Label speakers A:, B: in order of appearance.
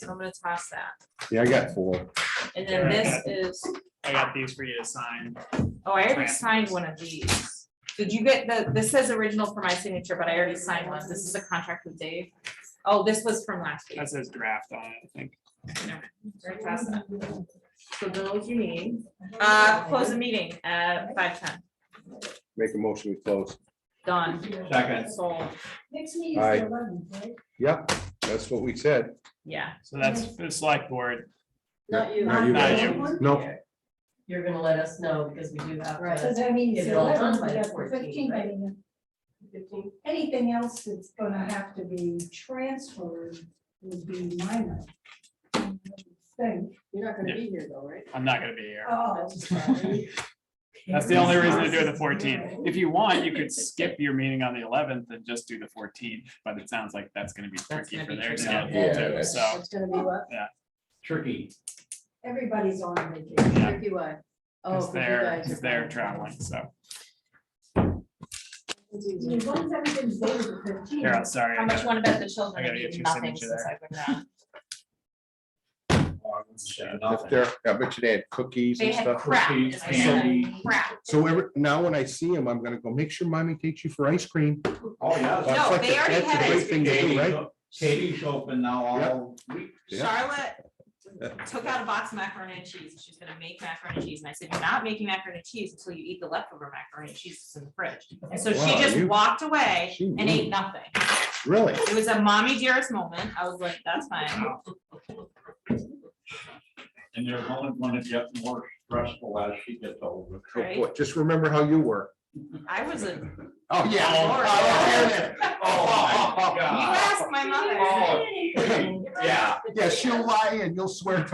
A: So I'm gonna toss that.
B: Yeah, I got four.
A: And then this is,
C: I got these for you to sign.
A: oh, I already signed one of these. Did you get the, this says original for my signature, but I already signed one. This is a contract with Dave. Oh, this was from last week.
C: That says draft on it, I think.
A: Already tossed that. So those you need. Uh, close the meeting at five ten.
B: Make a motion, we close.
A: Done.
D: Second.
A: Sold.
E: Next meeting
B: Aye.
E: is the eleventh, right?
B: Yep, that's what we said.
A: Yeah.
C: So that's the select board.
F: Not you.
B: Not you
C: Not
B: guys.
C: you.
B: No,
F: You're gonna let us know because we do have. to-
E: Right, so that means
F: Get
E: the
F: it all done
E: eleventh,
F: by
E: we
F: the
E: have the
F: 14th,
E: fifteenth,
F: right?
E: I mean, anything else that's gonna have to be transferred would be minor. I Think.
F: You're not gonna be here though, right?
C: I'm not gonna be here.
E: Oh,
C: That's the only reason to do it the fourteenth. If you want, you could skip your meeting on the eleventh and just do the fourteenth, but it sounds like that's gonna be
A: That's
C: tricky
A: gonna
C: for
A: be
C: their
A: tricky.
C: schedule
B: Yeah,
C: too,
B: that's-
C: so.
F: It's gonna be what?
D: Tricky.
E: everybody's on vacation.
C: Yeah.
F: Turkey why? Oh,
C: Cause
F: 'cause you
C: they're,
F: guys are
C: cause they're
F: gone.
C: traveling, so.
F: It's
E: I mean,
F: easy.
E: As long as everything's dated the fifteenth.
C: Here, I'm sorry.
A: How
C: I
A: much you
C: gotta-
A: wanna bet the
C: I
A: children
C: gotta
A: have
C: get
A: eaten
C: your
A: nothing
C: signature
A: since
C: there.
A: I've been gone?
B: if they're, I bet you they had cookies
A: They
B: and
A: had
B: stuff.
A: crap. is what I said. Crap.
B: So every, now when I see them, I'm gonna go, make sure mommy takes you for ice cream.
D: Oh,
B: That's
D: yeah.
A: No,
B: like
A: they
B: the-
A: already
B: that's the
A: had
B: great
A: ice
B: thing to do, right?
D: Katie's open now all week.
B: Yeah.
A: Charlotte took out a box of macaroni and cheese, and she's gonna make macaroni and cheese, and I said, you're not making macaroni and cheese until you eat the leftover macaroni and cheese that's in the fridge. And so she
B: Wow,
A: just
B: you-
A: walked away
B: She
A: and
B: rude.
A: ate nothing.
B: Really?
A: It was a mommy dearest moment, I was like, that's fine.
B: Oh,
D: And they're only gonna get more stressful as she gets older.
B: Oh,
A: Right.
B: boy, Just remember how you were.
A: I was a, you
B: Oh,
D: Yeah.
A: Lord.
D: Oh, my God.
A: asked my mother.
B: Ah.
D: Oh, Yeah.
B: Yeah, she'll lie and you'll swear to